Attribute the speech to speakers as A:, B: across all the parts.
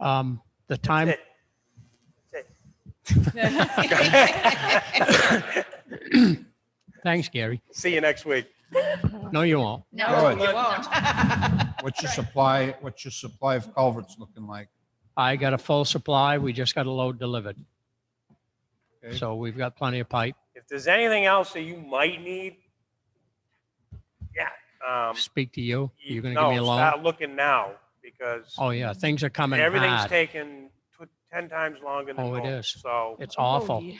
A: Um, The time,
B: it.
A: thanks, Gary.
B: See you next week.
A: No, you won't.
C: All
D: Oh,
E: No,
C: right.
E: you won't.
C: What's your supply, what's your supply of culverts looking like?
A: I got a full supply. We just got a load delivered.
C: Okay.
A: So we've got plenty of pipe.
B: If there's anything else that you might need, yeah. um,
A: Speak to you. You're going to give
B: no,
A: me a loan?
B: Start looking now because
A: Oh, yeah, things are coming
B: everything's
A: hard.
B: taken tw- ten times longer than
A: Oh, it
B: normal.
A: is.
B: So
A: It's
B: Oh,
A: awful.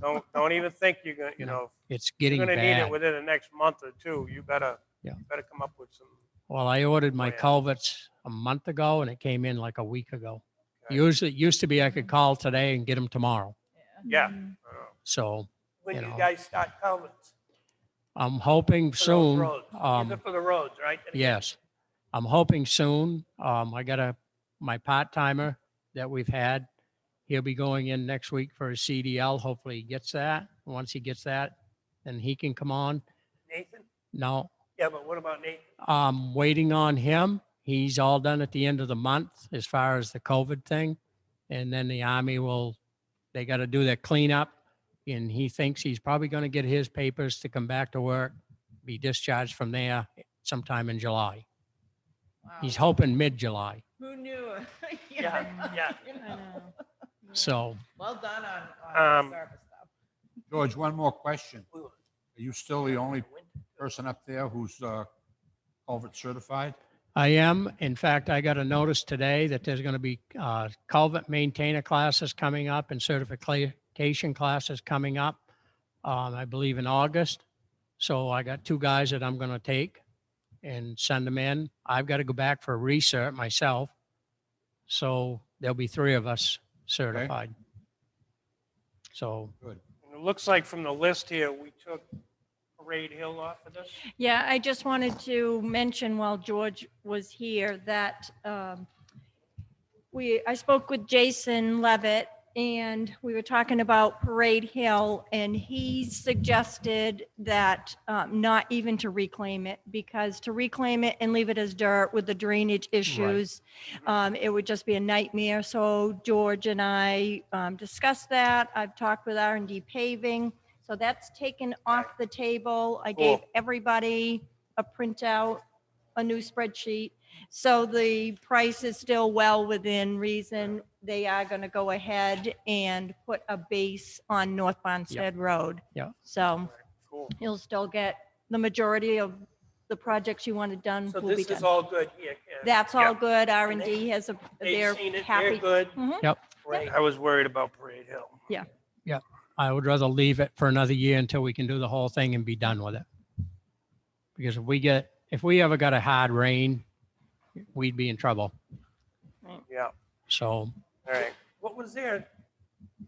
B: don't, don't even think you're gonna, you
A: No,
B: know,
A: It's
B: if
A: getting
B: you're gonna need it
A: bad.
B: within the next month or two. You better,
A: Yeah.
B: you better come up with some.
A: Well, I ordered my
B: Oh, yeah.
A: culverts a month ago and it came in like a week ago.
B: Okay.
A: Usually, it used to be I could call today and get them tomorrow.
B: Yeah. uh,
A: So
F: when
A: you
F: you
A: know.
F: guys start culverts.
A: I'm hoping
F: for those
A: soon.
F: roads.
A: um,
F: These are for the roads, right?
A: Yes. I'm hoping soon. Um, I got a, my part timer that we've had. He'll be going in next week for a CDL. Hopefully he gets that. Once he gets that, then he can come on.
F: Nathan?
A: No,
F: Yeah, but what about Nathan?
A: I'm waiting on him. He's all done at the end of the month as far as the COVID thing. And then the army will, they got to do their cleanup. And he thinks he's probably going to get his papers to come back to work, be discharged from there sometime in July. He's
E: Wow.
A: hoping mid-July.
E: Who knew? You
F: Yeah,
E: know,
F: yeah.
E: you know.
A: So
E: Well done on,
B: Um,
E: on service stuff.
C: George, one more question. Are you still the only person up there who's uh, culvert certified?
A: I am, in fact, I got a notice today that there's going to be uh, culvert maintainer classes coming up and certification classes coming up, um, I believe in August. So I got two guys that I'm going to take and send them in. I've got to go back for a recert myself. So there'll be three of us certified. So,
B: And It looks like from the list here, we took Parade Hill off of this.
D: Yeah, I just wanted to mention while George was here that um, we, I spoke with Jason Levitt and we were talking about Parade Hill and he suggested that um, not even to reclaim it because to reclaim it and leave it as dirt with the drainage issues, um, it would just be a nightmare. So George and I um, discussed that. I've talked with R and D paving. So that's taken off the table. I gave
B: Cool.
D: everybody a printout, a new spreadsheet. So the price is still well within reason. They are going to go ahead and put a base on North Bonstead Road.
A: Yeah.
D: So
B: Cool.
D: you'll still get the majority of the projects you wanted done
F: So
D: will Mm, be
F: this is
D: done.
F: all good here. Ken.
D: That's
B: yeah.
D: all good. R
F: And
D: and
F: they-
D: D has a,
F: They've
D: they're
F: seen it, they're
D: happy.
F: good.
D: Mhm.
A: Yep.
F: Great.
B: I was worried about Parade Hill.
A: I would rather leave it for another year until we can do the whole thing and be done with it. Because if we get, if we ever got a hard rain, we'd be in trouble.
B: Yeah,
A: So,
B: all right.
F: What was their,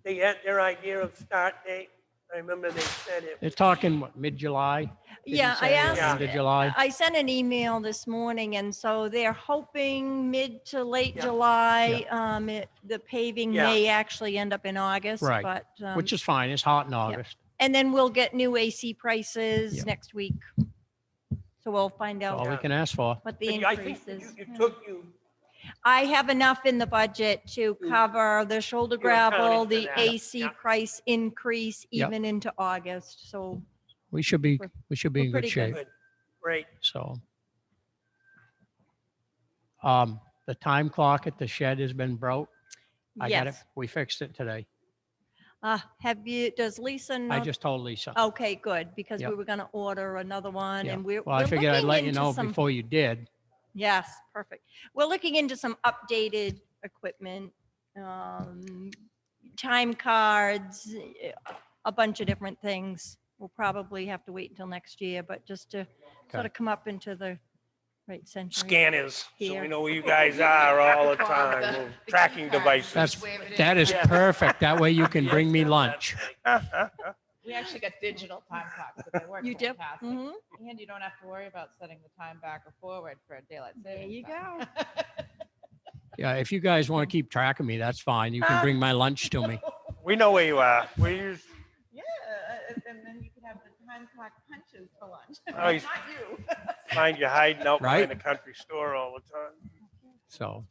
F: they had their idea of start date? I remember they said it.
A: they're talking what, mid-July? Did you
D: Yeah, I
A: say
D: asked.
A: End of July?
D: I sent an email this morning, and so they're hoping mid to late
F: Yeah.
D: July, um, it, the paving
F: Yeah.
D: may actually end up in August,
A: Right.
D: but, um,
A: Which is fine. It's hot in August.
D: and then we'll get new AC
A: Yeah.
D: prices next week. So we'll find
A: All
D: out
A: we
F: Yeah.
A: can ask for.
D: what the
F: But I think
D: increase
F: you
D: is.
F: you
D: Yeah.
F: took, you,
D: I have enough in the budget to
F: You-
D: cover the shoulder
F: you accounted
D: gravel,
F: Mm. for
D: the
F: that.
D: AC
F: Yeah.
D: price increase
A: Yep.
D: even into August, so.
A: We should be,
D: We're-
A: we should be
D: we're
A: in good
D: pretty
A: shape.
D: good.
F: good, great.
A: So. Um, the time clock at the shed has been broke. I got it.
D: yes.
A: We fixed it today.
D: Uh, have you, does Lisa know?
A: I just told Lisa.
D: Okay, good, because
A: Yep.
D: we were gonna order another one
A: Yeah.
D: and we're.
A: Well, I
D: we're
A: figured I'd
D: looking
A: let you
D: into
A: know
D: some-
A: before you did.
D: Yes, perfect. We're looking into some updated equipment, um, time cards, eh, a bunch of different things. We'll probably have to wait until next year, but just to sort
A: Okay.
D: of come up into the right century.
B: Scanners, so we
D: Here.
B: know where you guys are all the
E: Bob,
B: time.
E: the-
B: Little
E: the
B: Tracking
E: keypad.
B: devices.
A: That's-
E: Wave it in.
A: That is
B: Yeah.
A: perfect. That way you can bring me lunch.
E: We actually got digital time clocks, but they work
D: You do?
E: fantastic.
D: Mhm.
E: And you don't have to worry about setting the time back or forward for daylight
D: There
E: savings
D: you
E: time.
A: Yeah, if you guys want to keep track of me, that's fine. You can bring my lunch to me.
B: We know where you are. We use,
E: Yeah, and- and then you can have the time clock punches for lunch.
B: Oh, he's-
E: Not you.
B: find you hiding out behind
A: Right?
B: the country store all the time.
A: So,